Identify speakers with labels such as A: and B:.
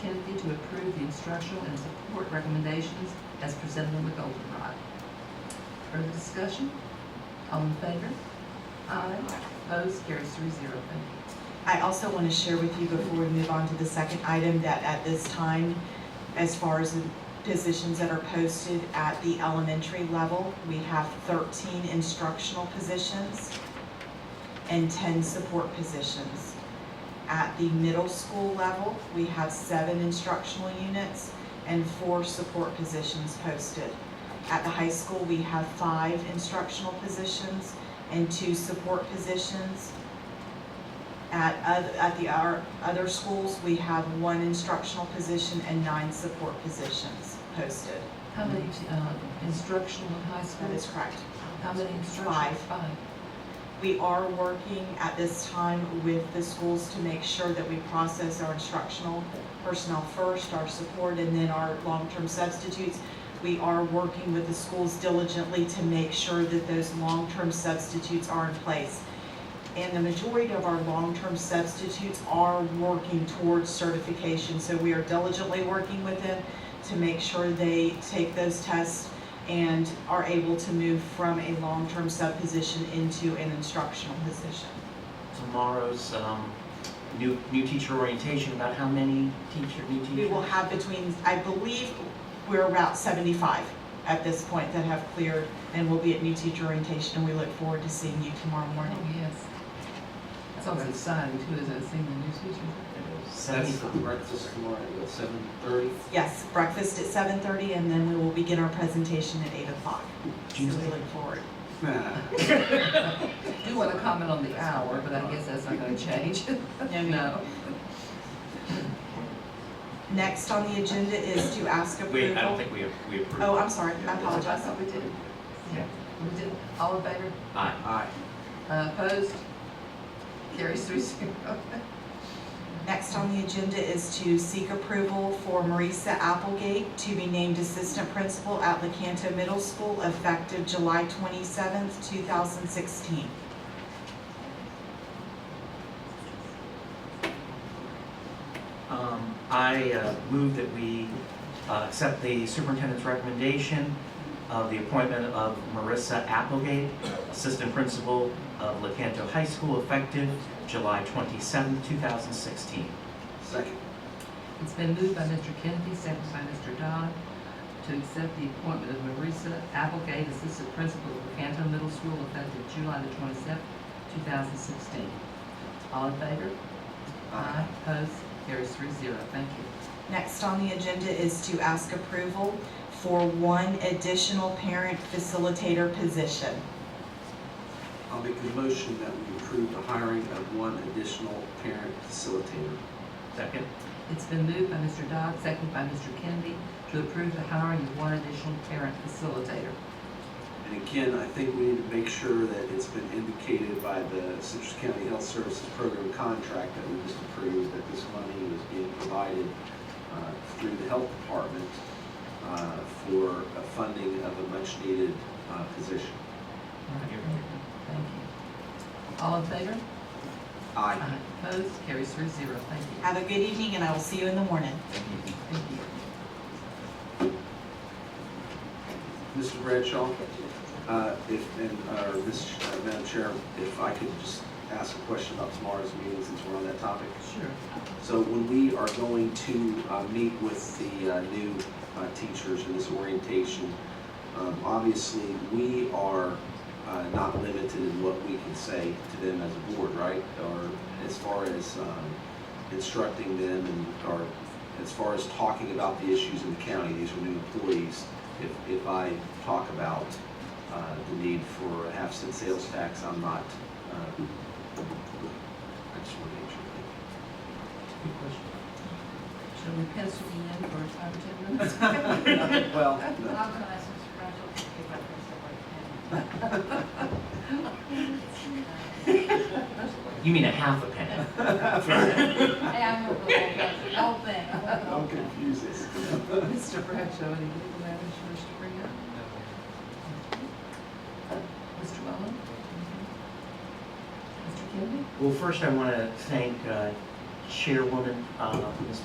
A: Timothy to approve the instructional and support recommendations as presented in the Goldenrod. Further discussion? All in favor? Aye. Opposed? Carries three zero. Thank you.
B: I also want to share with you before we move on to the second item that at this time, as far as the positions that are posted at the elementary level, we have thirteen instructional positions and ten support positions. At the middle school level, we have seven instructional units and four support positions posted. At the high school, we have five instructional positions and two support positions. At, oth- at the, our other schools, we have one instructional position and nine support positions posted.
A: How many uh, instructional in high
B: That is
A: schools?
B: correct.
A: How many instructional?
B: Five.
A: Five.
B: We are working at this time with the schools to make sure that we process our instructional personnel first, our support, and then our long-term substitutes. We are working with the schools diligently to make sure that those long-term substitutes are in place. And the majority of our long-term substitutes are working towards certification, so we are diligently working with them to make sure they take those tests and are able to move from a long-term sub position into an instructional position.
C: tomorrow's um, new, new teacher orientation about how many teacher, new teachers?
B: We will have between, I believe, we're about seventy-five at this point that have cleared and will be at new teacher orientation, and we look forward to seeing you tomorrow morning.
A: Oh, yes. That sounds exciting too, as I seen the new teacher.
D: That's
C: Seventy-five.
D: for breakfast tomorrow at seven thirty.
B: Yes, breakfast at seven thirty, and then we will begin our presentation at eight o'clock. So we
C: Tuesday.
B: look forward.
A: I Do want to comment on the hour, but I guess that's not going to change.
B: No,
A: No.
B: Next on the agenda is to ask
C: Wait, I don't
B: approval.
C: think we have, we approved.
B: Oh, I'm sorry, I
A: I
B: apologize.
A: thought we did. Yeah, we did. All in favor?
C: Aye.
D: Aye.
A: Uh, Opposed? Carries three zero.
B: Next on the agenda is to seek approval for Marisa Applegate to be named Assistant Principal at LaCanto Middle School effective July twenty-seventh, two thousand sixteen.
C: Um, I uh, move that we uh, accept the superintendent's recommendation of the appointment of Marissa Applegate, Assistant Principal of LaCanto High School, effective July 27, 2016.
D: Second.
A: It's been moved by Mr. Kennedy, seconded by Mr. Dodd, to accept the appointment of Marisa Applegate, Assistant Principal of Canton Middle School, effective July the twenty-seventh, two thousand sixteen. All in favor? Aye. Opposed? Carries three zero. Thank you.
B: Next on the agenda is to ask approval for one additional parent facilitator position.
D: I'll make a motion that we approve the hiring of one additional parent facilitator.
C: Second?
A: It's been moved by Mr. Dodd, seconded by Mr. Kennedy, to approve the hiring of one additional parent facilitator.
D: And again, I think we need to make sure that it's been indicated by the Citrus County Health Services Program contract that we just approved, that this money was being provided uh, through the Health Department uh, for uh, funding of a much-needed uh, position.
A: Thank you. All in favor?
D: Aye.
A: Aye. Opposed? Carries three zero. Thank you.
B: Have a good evening, and I will see you in the morning.
A: Thank you.
D: Mr. Bradshaw, uh, if, and, uh, Ms. Ch- uh, Madam Chair, if I could just ask a question about tomorrow's meeting since we're on that topic.
A: Sure.
D: So when we are going to uh, meet with the uh, new uh, teachers in this orientation, um, obviously, we are uh, not limited in what we can say to them as a board, right? Or as far as um, instructing them and, or as far as talking about the issues in the county, these are new employees. If, if I talk about uh, the need for a half-cent sales tax, I'm not, uh, I just want to make sure.
C: Good question.
A: Shall we pencil you in for five or ten minutes?
D: Well, no.
E: I'll go ask Mr. Bradshaw to pick up his
C: You mean a half a penny?
E: work. Hey, I know the whole thing, the whole thing. I know the whole
D: Don't
E: thing.
D: confuse us.
A: Mr. Bradshaw, any legal matters you wish to bring up? Mr. Mullin? Mr. Kennedy?
C: Well, first I want to thank uh, Chairwoman, uh, Ms.